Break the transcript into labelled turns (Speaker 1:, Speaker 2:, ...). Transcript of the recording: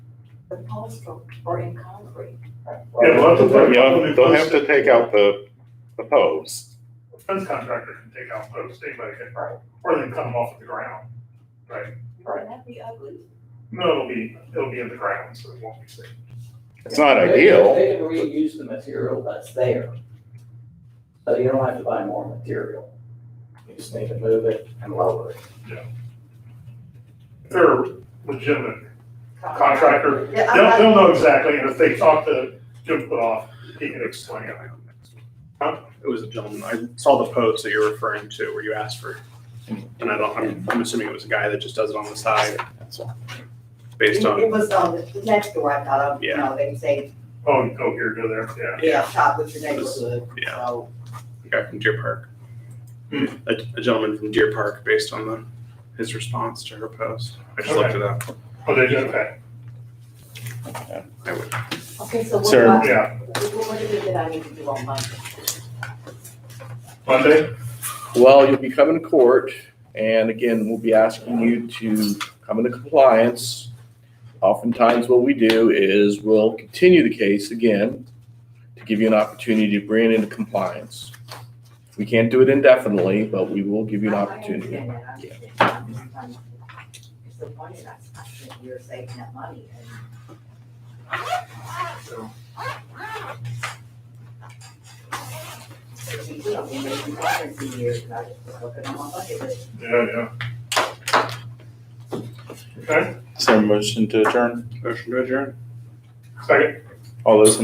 Speaker 1: the posts are- are in concrete.
Speaker 2: Yeah, well, that's what-
Speaker 3: Yeah, they'll have to take out the, the posts.
Speaker 2: Fence contractor can take out posts, anybody can, or they can cut them off at the ground.
Speaker 1: Wouldn't that be ugly?
Speaker 2: No, it'll be, it'll be in the ground, so it won't be seen.
Speaker 3: It's not
Speaker 4: They-
Speaker 3: ideal.
Speaker 4: They can reuse the material that's there. So you don't have to buy more material. You just need to move it and lower it.
Speaker 2: If they're legitimate
Speaker 1: Contract.
Speaker 2: contractor,
Speaker 1: Yeah, I'm
Speaker 2: they'll,
Speaker 1: not-
Speaker 2: they'll know exactly, and if they talk to Jim Putoff, he can explain it.
Speaker 5: It was a gentleman, I saw the post that you're referring to where you asked for, and I don't, I'm, I'm assuming it was a guy that just does it on the side. Based
Speaker 1: It
Speaker 5: on,
Speaker 1: it was on the the next door, I thought, of, you
Speaker 5: Yeah.
Speaker 1: know, they say,
Speaker 2: Oh, you go here, go there, yeah.
Speaker 1: yeah, shop with your neighborhood,
Speaker 5: yeah,
Speaker 1: so.
Speaker 5: a guy from Deer Park. A, a gentleman from Deer Park based on the, his response to her post. I just looked it up.
Speaker 2: Oh, they do, okay,
Speaker 5: I would,
Speaker 1: Okay, so what do
Speaker 3: Sir.
Speaker 1: I,
Speaker 2: yeah.
Speaker 1: what what is it that I need to do on Monday?
Speaker 2: Monday,
Speaker 3: Well, you'll be coming to court, and again, we'll be asking you to come into compliance. Oftentimes, what we do is we'll continue the case again to give you an opportunity to bring it into compliance. We can't do it indefinitely, but we will give you an
Speaker 1: I- I
Speaker 3: opportunity.
Speaker 1: understand that, I understand that, I'm just trying to- It's the point that I, I think you're saving that money and.
Speaker 2: so,
Speaker 1: You know, we made some progress in years, and I just was looking on my bucket list.
Speaker 2: yeah, yeah. Okay,
Speaker 6: Is there a motion to adjourn?
Speaker 5: motion to adjourn.
Speaker 2: second.
Speaker 6: All those in